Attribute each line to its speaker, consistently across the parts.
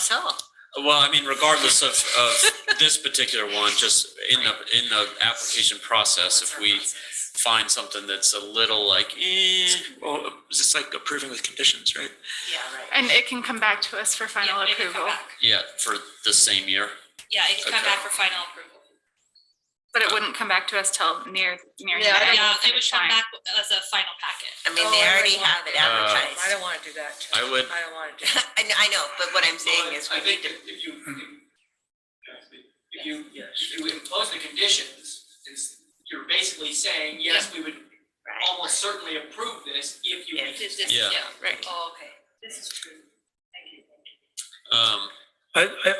Speaker 1: sure.
Speaker 2: Well, I mean, regardless of, of this particular one, just in the, in the application process, if we find something that's a little like, eh,
Speaker 3: Well, it's just like approving with conditions, right?
Speaker 1: Yeah, right.
Speaker 4: And it can come back to us for final
Speaker 5: Yeah, it can come
Speaker 4: approval,
Speaker 5: back.
Speaker 2: yeah, for the same year.
Speaker 5: Yeah, it can come
Speaker 2: Okay.
Speaker 5: back for final approval.
Speaker 4: but it wouldn't come back to us till near, near.
Speaker 6: Yeah, I don't-
Speaker 4: the end
Speaker 5: Yeah,
Speaker 4: of the
Speaker 5: they would
Speaker 4: finish line.
Speaker 5: come back as a final packet.
Speaker 1: I mean, they already have
Speaker 2: Uh,
Speaker 1: it
Speaker 6: I
Speaker 1: advertised.
Speaker 6: don't wanna do that.
Speaker 2: I would,
Speaker 6: I don't wanna do that.
Speaker 1: I know, I know, but what I'm saying is we need to,
Speaker 7: If you, if you, if you impose the conditions, it's, you're basically saying, yes, we would
Speaker 1: right,
Speaker 7: almost certainly approve this if you.
Speaker 1: Yeah.
Speaker 5: This- this-
Speaker 2: Yeah.
Speaker 1: right.
Speaker 5: Oh, okay.
Speaker 2: um,
Speaker 3: I, I,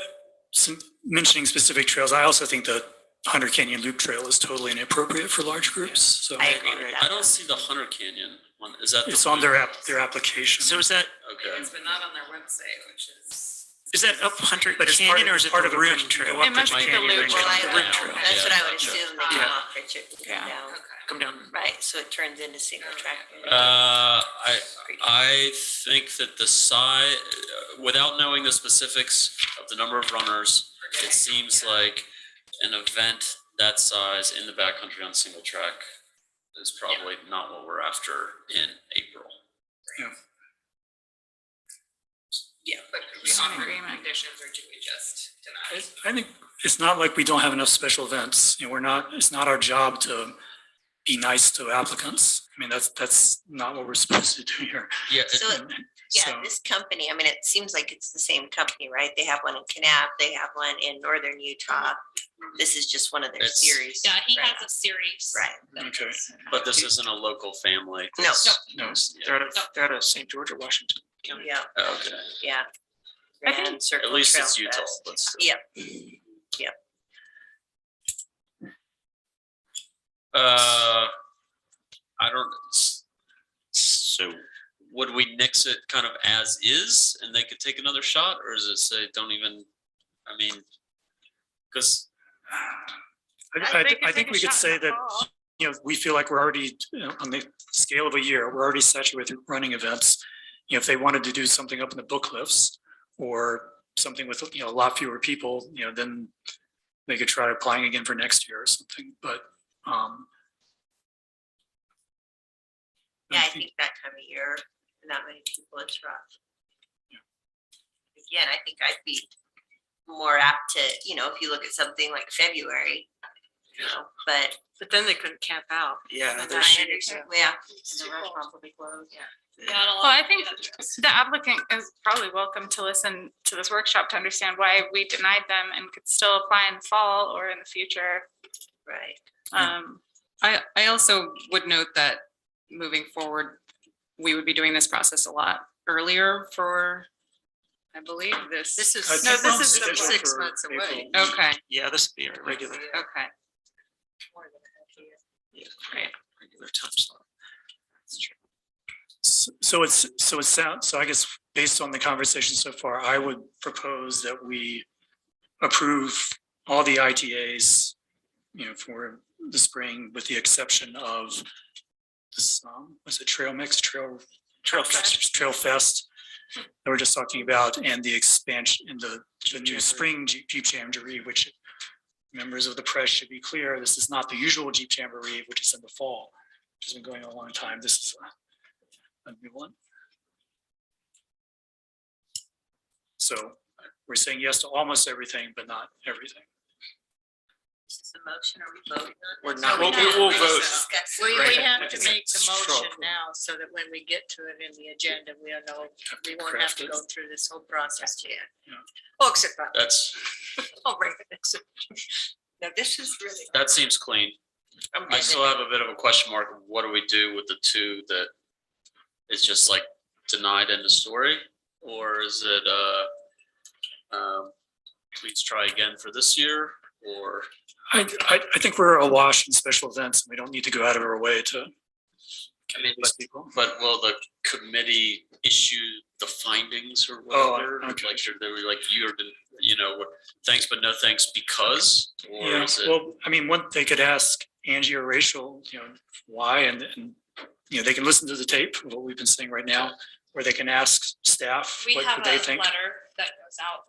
Speaker 3: some, mentioning specific trails, I also think the Hunter Canyon Loop Trail is totally inappropriate for large groups, so.
Speaker 1: I agree with
Speaker 2: I
Speaker 1: that.
Speaker 2: don't see the Hunter Canyon one. Is that? the
Speaker 3: It's on
Speaker 2: one?
Speaker 3: their app, their application.
Speaker 8: So is that,
Speaker 2: Okay.
Speaker 5: but not on their website, which is.
Speaker 8: is that up Hunter
Speaker 3: But it's part
Speaker 8: Canyon
Speaker 3: of-
Speaker 8: or is it
Speaker 3: part
Speaker 8: the
Speaker 3: of a
Speaker 8: Rim
Speaker 3: bridge.
Speaker 8: Trail?
Speaker 3: Well,
Speaker 4: It must be the
Speaker 3: Pennsylvania
Speaker 4: loop.
Speaker 3: Ridge
Speaker 1: Well, I,
Speaker 3: Trail.
Speaker 1: don't know. that's what I would
Speaker 2: Yeah.
Speaker 1: assume,
Speaker 6: Um,
Speaker 1: they
Speaker 5: Yeah.
Speaker 1: come off Richard,
Speaker 4: Yeah.
Speaker 1: down,
Speaker 8: Come down.
Speaker 1: right, so it turns into single track.
Speaker 2: Uh, I, I think that the size, without knowing the specifics of the number of runners, it seems like an event that size in the backcountry on single track is probably not what we're after in April.
Speaker 5: But
Speaker 4: we offer Agreement.
Speaker 5: conditions or do we just deny?
Speaker 3: I- I think it's not like we don't have enough special events. You know, we're not, it's not our job to be nice to applicants. I mean, that's, that's not what we're supposed to do here.
Speaker 2: Yeah,
Speaker 1: So, yeah,
Speaker 3: So-
Speaker 1: this company, I mean, it seems like it's the same company, right? They have one in Canab, they have one in northern Utah. This is just one of their
Speaker 2: It's-
Speaker 1: series.
Speaker 5: Yeah, he
Speaker 1: Right.
Speaker 5: has a series.
Speaker 1: Right,
Speaker 3: Okay.
Speaker 2: but this isn't a local family.
Speaker 1: No.
Speaker 2: This-
Speaker 3: No.
Speaker 8: They're out of, they're out of St. George or Washington County.
Speaker 1: yeah,
Speaker 2: Okay,
Speaker 1: yeah.
Speaker 4: I think-
Speaker 1: Grand Circle
Speaker 2: at least
Speaker 1: Trail
Speaker 2: it's Utah,
Speaker 1: Fest.
Speaker 2: but still.
Speaker 1: Yep, yep.
Speaker 2: Uh, I don't, s- so would we nix it kind of as is and they could take another shot or is it say, don't even, I mean, because,
Speaker 3: I, I, I think we could say that, you know, we feel like we're already, you know, on the scale of a year, we're already saturated with running events. You know, if they wanted to do something up in the book cliffs or something with, you know, a lot fewer people, you know, then they could try applying again for next year or something, but, um.
Speaker 1: Yeah, I think that time of year, and that many people, it's rough. Again, I think I'd be more apt to, you know, if you look at something like February, you know, but.
Speaker 6: But then they couldn't camp out.
Speaker 1: I
Speaker 8: Yeah. they're shooting-
Speaker 1: understand- Yeah.
Speaker 5: Not a lot.
Speaker 4: Well, I think the applicant is probably welcome to listen to this workshop to understand why we denied them and could still apply in the fall or in the future.
Speaker 1: Right,
Speaker 4: Um,
Speaker 9: I, I also would note that moving forward, we would be doing this process a lot earlier for, I believe, this.
Speaker 6: This
Speaker 3: I
Speaker 6: is,
Speaker 3: think
Speaker 6: no,
Speaker 3: that's
Speaker 6: this is
Speaker 3: scheduled
Speaker 6: six
Speaker 3: for
Speaker 6: months away.
Speaker 3: April.
Speaker 9: Okay,
Speaker 8: Yeah, this would be our regular,
Speaker 9: okay.
Speaker 8: regular time slot.
Speaker 3: S- So it's, so it sounds, so I guess based on the conversation so far, I would propose that we approve all the ITAs, you know, for the spring with the exception of this, um, was it Trail Mix, Trail? Trail Fest. Trail Fest that we're just talking about and the expansion in the, the new spring Jeep Jeep Jamboree, which members of the press should be clear, this is not the usual Jeep Jamboree, which is in the fall, which has been going on a long time. This is a new one. So we're saying yes to almost everything, but not everything.
Speaker 1: this is a motion, are we voting on
Speaker 8: We're
Speaker 1: this?
Speaker 8: not-
Speaker 1: Are
Speaker 8: Well,
Speaker 1: not?
Speaker 8: we will
Speaker 1: We're
Speaker 8: vote.
Speaker 1: just discussing.
Speaker 6: We,
Speaker 8: Right.
Speaker 6: we have to make the
Speaker 8: It's straw
Speaker 6: motion
Speaker 8: poll.
Speaker 6: now so that when we get to it in the agenda, we don't know, we won't have to go through this whole process again.
Speaker 3: Yeah.
Speaker 6: Oh, except, for-
Speaker 2: that's,
Speaker 6: oh, right, except-
Speaker 1: No, this is really.
Speaker 2: that seems clean.
Speaker 1: I'm
Speaker 2: I
Speaker 1: good
Speaker 2: still
Speaker 1: with
Speaker 2: have a bit of a question mark. of What do we do with the two that is just like denied in the story? Or is it, uh, um, please try again for this year or?
Speaker 3: I, I, I think we're awash in special events and we don't need to go out of our way to.
Speaker 2: I mean,
Speaker 3: these people.
Speaker 2: But will the committee issue the findings or
Speaker 3: Oh,
Speaker 2: whatever? Like,
Speaker 3: okay.
Speaker 2: should they were like, you're, the- you know, what- thanks, but no thanks because, or
Speaker 3: Yeah,
Speaker 2: is it?
Speaker 3: well, I mean, one, they could ask Angie or Rachel, you know, why and, and, you know, they can listen to the tape of what we've been saying right now. Or they can ask staff,
Speaker 5: We
Speaker 3: what
Speaker 5: have
Speaker 3: do
Speaker 5: a
Speaker 3: they think?
Speaker 5: letter that goes out